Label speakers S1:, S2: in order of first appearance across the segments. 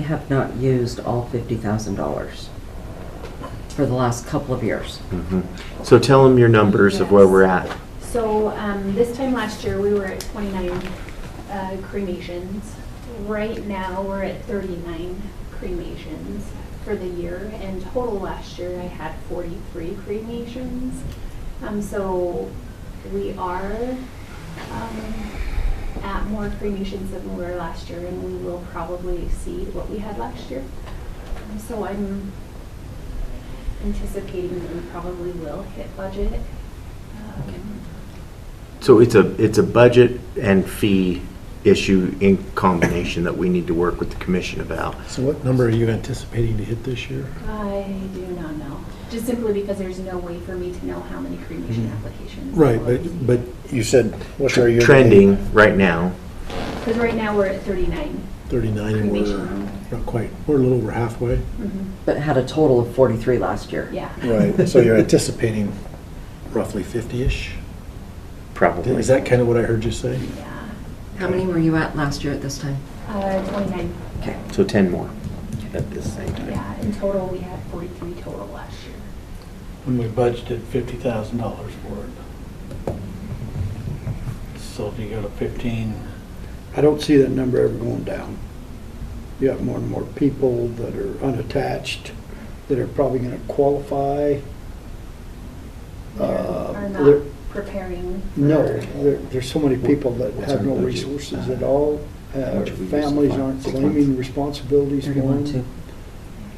S1: We have not used all fifty thousand dollars for the last couple of years.
S2: Mhm. So tell them your numbers of where we're at.
S3: So um, this time last year, we were at 29 uh, cremations. Right now, we're at 39 cremations for the year. And total last year, I had 43 cremations. Um, So we are um, at more cremations than we were last year, and we will probably exceed what we had last year. Um, So I'm anticipating that we probably will hit budget. Um,
S2: So it's a, it's a budget and fee issue in combination that we need to work with the commission about.
S4: So what number are you anticipating to hit this year?
S3: I do not know, just simply because there's no way for me to know how many cremation
S5: Mm-hmm.
S3: applications.
S4: Right, but, but you said, what's our year?
S2: Trending right now.
S3: Because right now, we're at 39.
S4: 39, and we're
S3: Cremation.
S4: not quite, we're a little over halfway.
S3: Mhm.
S1: But had a total of forty-three last year.
S3: Yeah.
S4: Right, so you're anticipating roughly 50-ish?
S2: Probably.
S4: Is that kind of what I heard you say?
S3: Yeah.
S1: How many were you at last year at this time?
S3: Uh, 29,
S1: Okay.
S2: So 10 more at this same time.
S3: yeah, in total, we had 43 total last year.
S6: when we budgeted fifty thousand dollars for it. So if you go to fifteen,
S5: I don't see that number ever going down. You have more and more people that are unattached, that are probably gonna qualify. Uh,
S3: Are
S5: there-
S3: not preparing.
S5: No,
S3: for-
S5: there, there's so many people that
S2: What's
S5: have
S2: our
S5: no
S2: budget? Uh,
S5: resources at all.
S2: How
S5: Uh,
S2: much we use
S5: Families
S2: for
S5: aren't
S2: six months?
S5: claiming responsibilities for
S1: Thirty-one,
S5: them.
S1: two.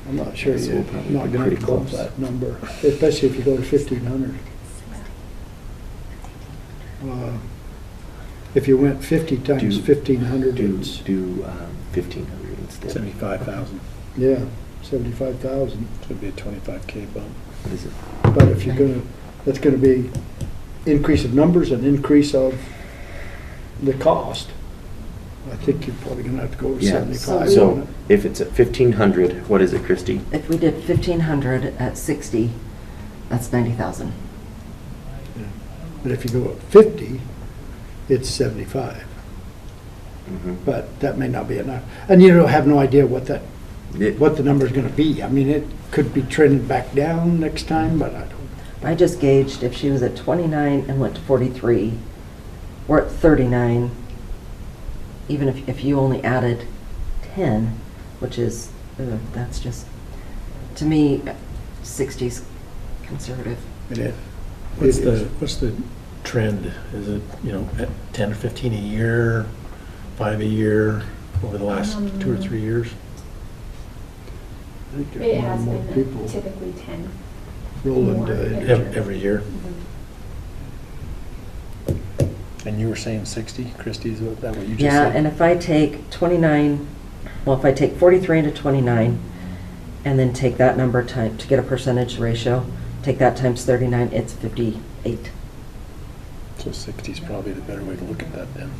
S5: I'm not sure
S2: So
S5: you're
S2: we'll probably
S5: not
S2: be
S5: gonna
S2: pretty
S5: close
S2: close.
S5: that number, especially if you go to fifteen hundred. Uh, If you went fifty times
S2: Do-
S5: fifteen hundred,
S2: Do,
S5: it's.
S2: do um, 1,500 instead.
S4: 75,000,
S5: Yeah, seventy-five thousand,
S4: so it'd be a 25K bump.
S2: What is it?
S5: but if you're gonna, that's gonna be increase of numbers and increase of the cost. I think you're probably gonna have to go to
S2: Yeah,
S5: seventy-five.
S2: so if it's at 1,500, what is it, Christie?
S1: If we did fifteen hundred at sixty, that's ninety thousand.
S5: But if you go up fifty, it's seventy-five,
S2: Mhm.
S5: but that may not be enough. And you don't have no idea what that,
S2: It-
S5: what the number's gonna be. I mean, it could be trending back down next time, but I don't.
S1: I just gauged if she was at twenty-nine and went to forty-three, we're at thirty-nine. Even if, if you only added ten, which is, uh, that's just, to me, sixty's conservative.
S5: It is.
S4: What's
S5: It
S4: the,
S5: is.
S4: what's the trend? Is it, you know, at 10 or 15 a year, five a year, over the last two or
S3: Um,
S4: three years?
S5: I think
S3: It
S5: there's more
S3: has
S5: and more
S3: been
S5: people
S3: typically 10.
S5: roll
S3: more
S5: into
S3: every
S5: it.
S4: Ev- Every year?
S3: Mhm.
S4: And you were saying 60, Christie, is that what you
S1: Yeah, and if I take 29, well, if I take 43 into 29, and then take that number time, to get a percentage ratio, take that times 39, it's 58.
S4: So 60 is probably the better way to look at that then.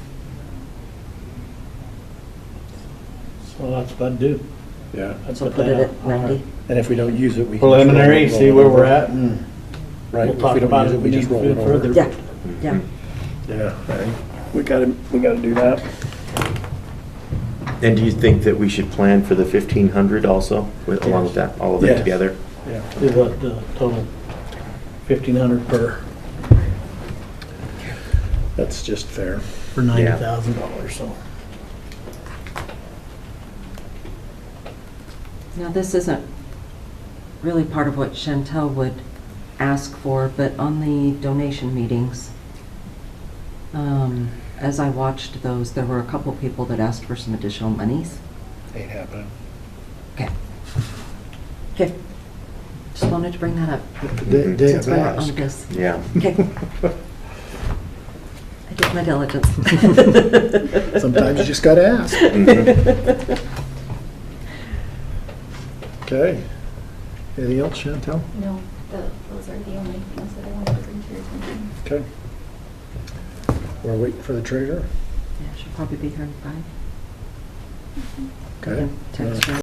S6: so that's about due.
S4: Yeah.
S6: That's
S1: So
S6: what
S1: put it
S6: that-
S1: at 90.
S4: And if we don't use it, we. can just roll it-
S6: Preliminary,
S4: roll
S6: see
S4: it
S6: where
S4: over. Mm.
S6: we're at and
S4: Right,
S6: we'll
S4: if
S6: talk
S4: we
S6: about
S4: don't use
S6: it
S4: it, we
S6: if
S4: just
S6: we
S4: roll
S6: need
S4: it over.
S6: further.
S1: Yeah,
S2: mm-hmm.
S1: yeah.
S4: Yeah, I think we gotta, we gotta do that.
S2: And do you think that we should plan for the 1,500 also, with- along with that, all of that
S4: Yes.
S2: together?
S4: Yeah.
S6: do the, the total fifteen hundred per,
S4: That's just fair.
S6: for ninety thousand dollars, so.
S1: Now, this isn't really part of what Chantel would ask for, but on the donation meetings, um, as I watched those, there were a couple people that asked for some additional monies.
S4: Ain't happening.
S1: Okay. Okay. Just wanted to bring that up.
S5: They, they
S1: Since
S5: have
S1: we're on
S5: asked.
S1: this.
S2: Yeah.
S1: Okay. I did my diligence.
S4: Sometimes you just gotta ask. Okay. Anything else, Chantel?
S3: No, tho- those are the only things that I wanted to bring to your attention.
S4: Okay. We're waiting for the treasurer.
S1: Yeah, she'll probably be here in five.
S4: Okay.
S1: Text her.